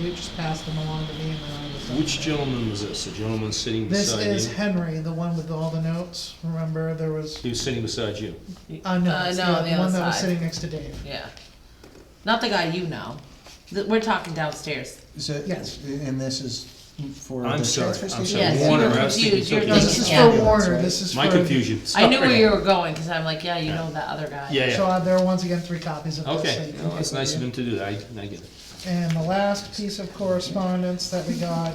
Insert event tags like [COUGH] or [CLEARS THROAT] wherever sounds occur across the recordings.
you just passed them along to me and then I was. Which gentleman was this? A gentleman sitting This beside is you? Henry, the one with all the notes, remember, there was, He was sitting beside you. uh, no, Uh, it's no, the on the the one other that was side. sitting next to Dave. Yeah. Not the guy you know. Th- We're talking downstairs. So, Yes. and this is for the I'm sorry, transfer I'm station? sorry. Yes, Warner, I was thinking confused. You're something No, thinking- this is yeah. for Warner, Right. this is for. My confusion. I knew where Sorry. you were going because I'm like, yeah, you know that other guy. Yeah, So yeah. uh, there are once again three copies of this. so Okay, you can uh, well, that's take a nice of look. him to do that. I, I get it. And the last piece of correspondence that we got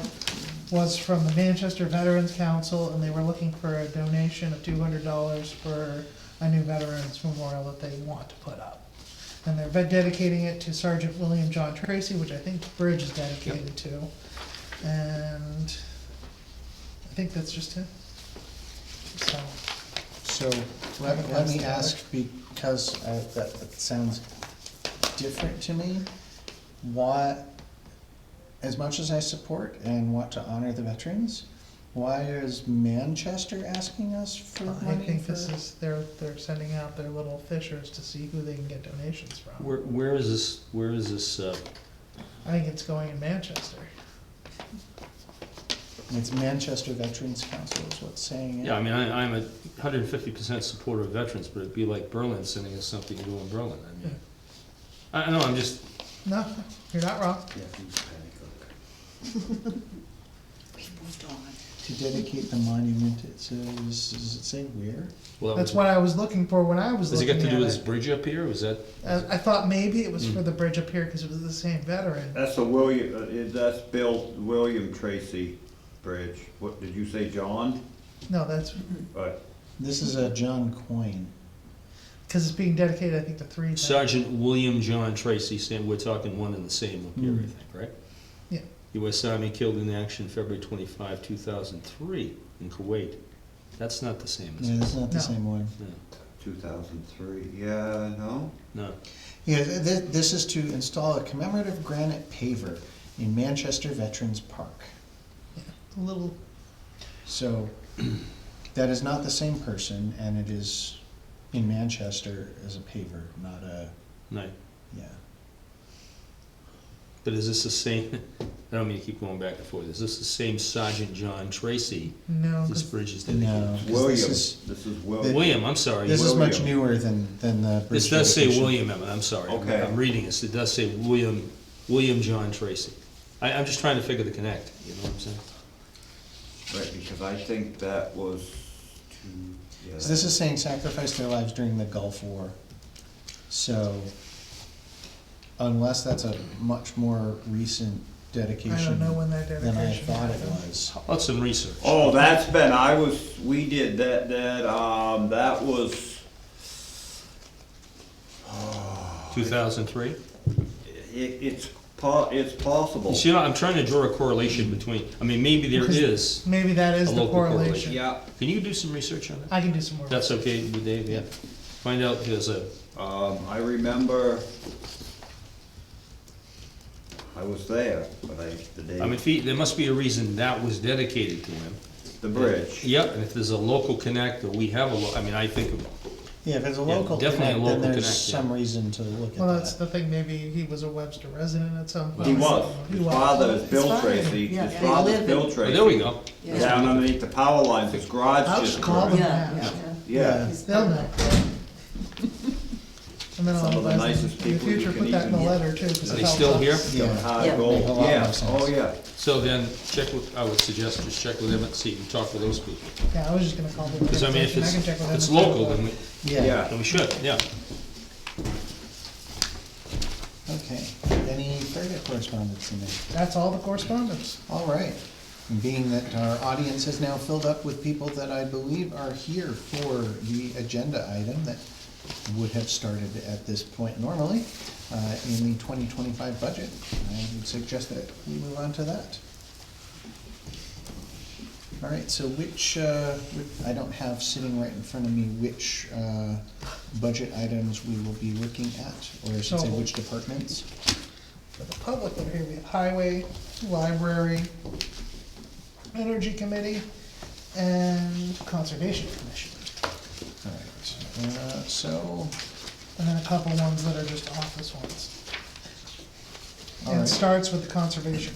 was from the Manchester Veterans Council, and they were looking for a donation of two hundred dollars for a new veterans memorial that they want to put up. And they're dedicating it to Sergeant William John Tracy, which I think Bridge is dedicated to. And I think that's just it. So, So, let, let me ask, because I, that, that sounds different to me, why, as much as I support and want to honor the veterans, why is Manchester asking us for I money think for? this is, they're, they're sending out their little fishers to see who they can get donations from. Where, where is this, where is this, uh, I think it's going in Manchester. It's Manchester Veterans Council is what's saying it. yeah, I mean, I, I'm a hundred and fifty percent supporter of veterans, but it'd be like Berlin sending us something to do in Berlin, I mean. I, I know, I'm just, No, you're not wrong. To dedicate the monument, it says, does it say where? well, That's what I was looking for when I was does it looking got to do at with this it. bridge up here? Was that, I, I thought maybe it was for Mm. the bridge up here because it was the same veteran. That's the William, uh, is- that's Bill, William Tracy Bridge. What, did you say John? No, that's But This is a John Coyne. because it's being dedicated, I think, to three. veterans. Sergeant William John Tracy, Sam, we're talking one and the same up here, I Mm. think, right? Yeah. US Army killed in action February twenty-five, two thousand three in Kuwait. That's not the same, Yeah, is it? that's not the No. same one. No, two thousand three, yeah, no? no. Yeah, th- th- this is to install a commemorative granite paver in Manchester Veterans Park. A little. So [CLEARS THROAT] that is not the same person, and it is in Manchester as a paver, not a, No, yeah. but is this the same, [LAUGHS] I don't mean to keep going back and forth, is this the same Sergeant John Tracy? No, 'cause This bridge is dedicated. No, 'cause William, this this is, is William. William, I'm sorry. this is much William. newer than, than the. This bridge does say dedication. William, Emmett, I'm sorry. I'm- Okay. I'm reading this, it does say William, William John Tracy. I, I'm just trying to figure the connect, you know what I'm saying? Right, because I think that was two, yeah. So this is saying sacrifice their lives during the Gulf War. So unless that's a much more recent dedication. I don't know when that than I dedication thought it happened. was. Let's some research. Oh, that's been, I was, we did that, that, um, that was, [SIGHS] 2003? it, it's po, it's possible. You see, I'm trying to draw a correlation between, I mean, maybe there is. Maybe that is A the local correlation. correlation. Yeah, Can you do some research on that? I can do some more. That's okay with Dave, yeah. Find out, there's a, um, I remember I was there, but I, the I mean, day, if he- there must be a reason that was dedicated to him. the bridge. Yep, and if there's a local connect, or we have a, lo- I mean, I think, of- Yeah, if it's a Yeah, local definitely a local connect, then there's connect, yeah. some reason to look at Well, that's the that. thing. Maybe he was a Webster resident at some point. He was. He His was. father is Bill It's fine. Tracy. Yeah. His father's Bill oh, Tracy. there we go. Down underneath the power lines, his garage I'll just just call burned. them Yeah, now. yeah. Yeah, They'll [LAUGHS] know. And then I'll Some of the advise them nicest in the people you future, can put that in the even- letter too. 'cause Are it they helps still us. here? Yeah, hard Yeah. gold, Make a lot more yeah, sense. oh, yeah. So then, check with, I would suggest just check with Emmett, see, and talk with those people. Yeah, I was just gonna call the Because I mean, if organization. I it's, can check with if them. it's and see what local, the- then we, yeah, then Yeah, we should, yeah. okay. Any further correspondence in there? That's all the correspondence. All right. And Being that our audience is now filled up with people that I believe are here for the agenda item that would have started at this point normally, uh, in the twenty twenty-five budget, I would suggest that we move on to that. All right, so which, uh, which- I don't have sitting right in front of me which, uh, budget items we will be looking at, or I should say So- which departments? For the public, over here we have highway, library, energy committee, and conservation commission. All right, uh, so, And then a couple ones that are just office ones. All and right. starts with the Conservation